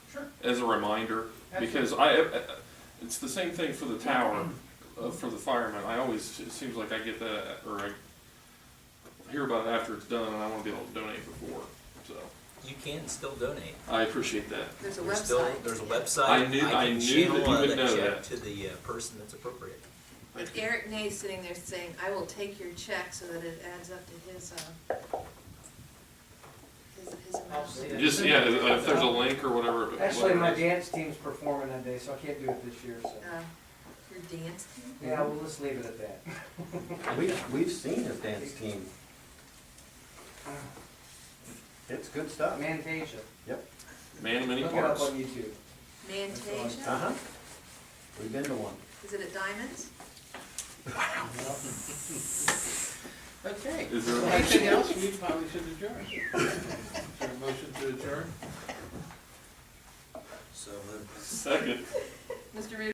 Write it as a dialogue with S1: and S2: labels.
S1: as a reminder, because I, I- it's the same thing for the tower, uh, for the firemen, I always, it seems like I get that, or I hear about it after it's done, and I wanna be able to donate before, so,
S2: You can still donate.
S1: I appreciate that.
S3: There's a
S2: There's still,
S3: website.
S2: there's a website.
S1: I knew-
S2: can
S1: I knew that
S2: channel,
S1: you
S2: uh,
S1: would
S2: that
S1: know
S2: check
S1: that.
S2: To the uh, person that's appropriate.
S1: Thank you.
S3: Eric Nay's sitting there saying, I will take your check so that it adds up to his, uh, his, his
S4: I'll see
S3: amount.
S4: it.
S1: Just, yeah, if there's a link or whatever.
S4: Actually, my
S1: whatever it is.
S4: dance team's performing that day, so I can't do it this year, so.
S3: Uh, Your dance team?
S4: Yeah, we'll just leave it at that.
S5: We've, we've seen his dance team. It's good stuff.
S4: Mantasia,
S5: Yep.
S1: Man, of many
S4: look it up
S1: parts.
S4: on YouTube.
S3: Mantasia?
S5: Uh-huh. We've been to one.
S3: Is it at Diamonds?
S6: Okay.
S1: Is there a
S6: Anything else, we probably should adjourn. Is there a motion to adjourn?
S2: So moved.
S1: Second.
S3: Mr. Rudy?